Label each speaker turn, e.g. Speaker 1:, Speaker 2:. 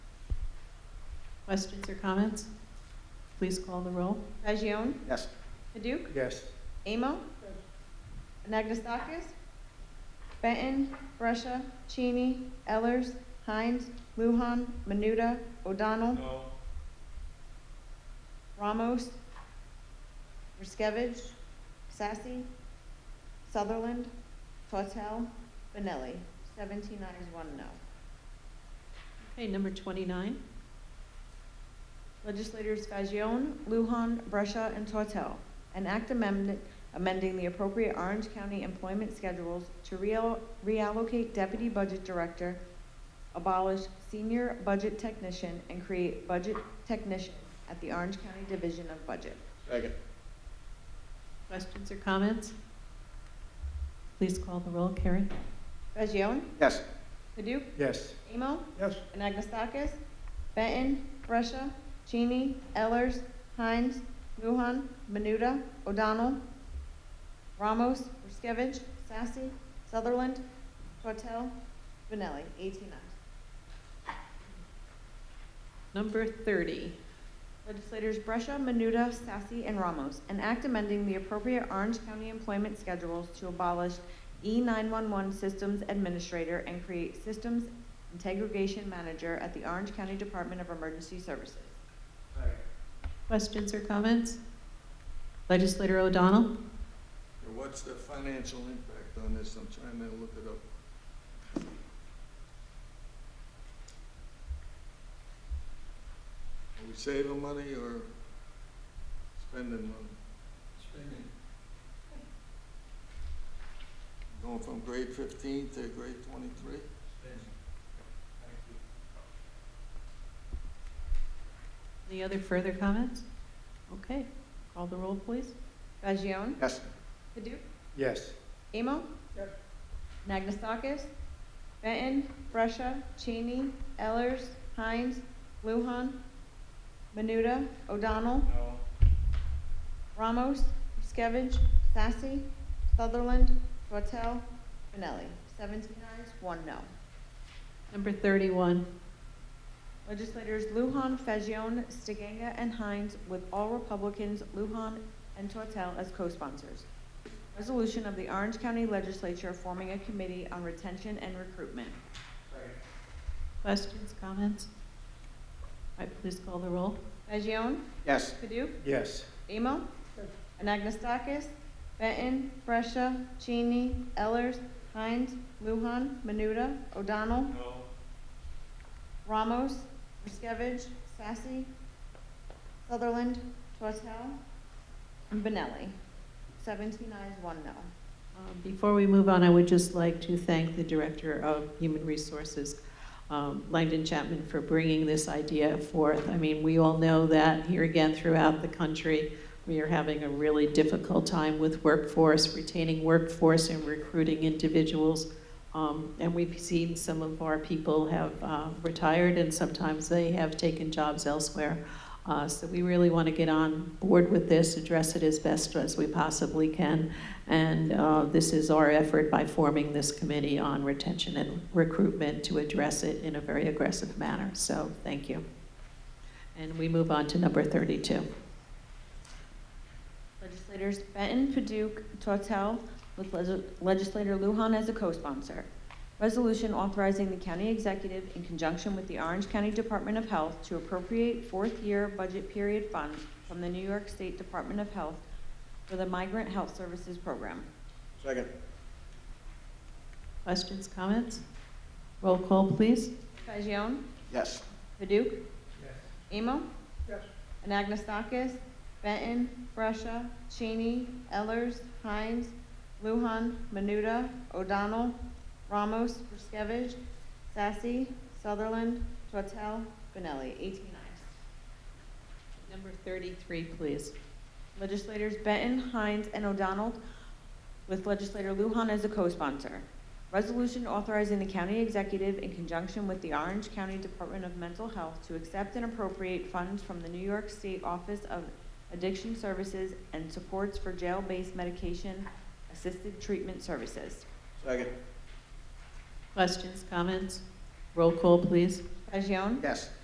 Speaker 1: Questions or comments? Please call the roll.
Speaker 2: Fagion?
Speaker 3: Yes.
Speaker 2: Paduk?
Speaker 3: Yes.
Speaker 2: Amo? Nagustakis? Benton? Russia? Cheney? Ellers? Hines? Luhan? Menuda? O'Donnell?
Speaker 4: No.
Speaker 2: Ramos? Ruskovich? Sassy? Sutherland? Tortel? Benelli? Seventeen ayes, one no.
Speaker 1: Okay, number 29.
Speaker 2: Legislators Fagion, Lujan, Brescia, and Tortel. An act amendment amending the appropriate Orange County employment schedules to real- reallocate deputy budget director, abolish senior budget technician, and create budget technician at the Orange County Division of Budget.
Speaker 3: Second.
Speaker 1: Questions or comments? Please call the roll. Carrie?
Speaker 2: Fagion?
Speaker 3: Yes.
Speaker 2: Paduk?
Speaker 3: Yes.
Speaker 2: Amo?
Speaker 3: Yes.
Speaker 2: Anagnestakis? Benton? Brescia? Cheney? Ellers? Hines? Luhan? Menuda? O'Donnell? Ramos? Ruskovich? Sassy? Sutherland? Tortel? Benelli? Eighteen ayes.
Speaker 1: Number 30.
Speaker 2: Legislators Brescia, Menuda, Sassy, and Ramos. An act amending the appropriate Orange County employment schedules to abolish E E-911 Systems Administrator and create Systems Integration Manager at the Orange County Department of Emergency Services.
Speaker 1: Questions or comments? Legislator O'Donnell?
Speaker 4: What's the financial impact on this? I'm trying to look it up. Are we saving money or spending money? Spending. Going from grade fifteen to grade twenty-three?
Speaker 1: Any other further comments? Okay, call the roll, please.
Speaker 2: Fagion?
Speaker 3: Yes.
Speaker 2: Paduk?
Speaker 3: Yes.
Speaker 2: Amo? Nagnestakis? Benton? Brescia? Cheney? Ellers? Hines? Luhan? Menuda? O'Donnell?
Speaker 4: No.
Speaker 2: Ramos? Skevich? Sassy? Sutherland? Tortel? Benelli? Seventeen ayes, one no.
Speaker 1: Number 31.
Speaker 2: Legislators Lujan, Fagion, Stiganga, and Hines, with all Republicans, Lujan and Tortel as co-sponsors. Resolution of the Orange County Legislature forming a committee on retention and recruitment.
Speaker 1: Questions, comments? All right, please call the roll.
Speaker 2: Fagion?
Speaker 3: Yes.
Speaker 2: Paduk?
Speaker 3: Yes.
Speaker 2: Emo? Anagnestakis? Benton? Brescia? Cheney? Ellers? Hines? Luhan? Menuda? O'Donnell?
Speaker 4: No.
Speaker 2: Ramos? Ruskovich? Sassy? Sutherland? Tortel? And Benelli. Seventeen ayes, one no.
Speaker 1: Um, Before we move on, I would just like to thank the Director of Human Resources, um, Langdon Chapman, for bringing this idea forth. I mean, we all know that here again throughout the country, we are having a really difficult time with workforce, retaining workforce and recruiting individuals. Um, And we've seen some of our people have uh, retired and sometimes they have taken jobs elsewhere. Uh, So we really want to get on board with this, address it as best as we possibly can. And uh, this is our effort by forming this committee on retention and recruitment to address it in a very aggressive manner. So thank you. And we move on to number 32.
Speaker 2: Legislators Benton, Paduk, Tortel, with legis- legislator Lujan as a co-sponsor. Resolution authorizing the county executive in conjunction with the Orange County Department of Health to appropriate fourth-year budget period funds from the New York State Department of Health for the Migrant Health Services Program.
Speaker 3: Second.
Speaker 1: Questions, comments? Roll call, please.
Speaker 2: Fagion?
Speaker 3: Yes.
Speaker 2: Paduk?
Speaker 3: Yes.
Speaker 2: Amo?
Speaker 3: Yes.
Speaker 2: Anagnestakis? Benton? Brescia? Cheney? Ellers? Hines? Luhan? Menuda? O'Donnell? Ramos? Ruskovich? Sassy? Sutherland? Tortel? Benelli? Eighteen ayes.
Speaker 1: Number 33, please.
Speaker 2: Legislators Benton, Hines, and O'Donnell, with legislator Lujan as a co-sponsor. Resolution authorizing the county executive in conjunction with the Orange County Department of Mental Health to accept and appropriate funds from the New York State Office of Addiction Services and Supports for Jail-Based Medication Assisted Treatment Services.
Speaker 3: Second.
Speaker 1: Questions, comments? Roll call, please.
Speaker 2: Fagion?
Speaker 3: Yes.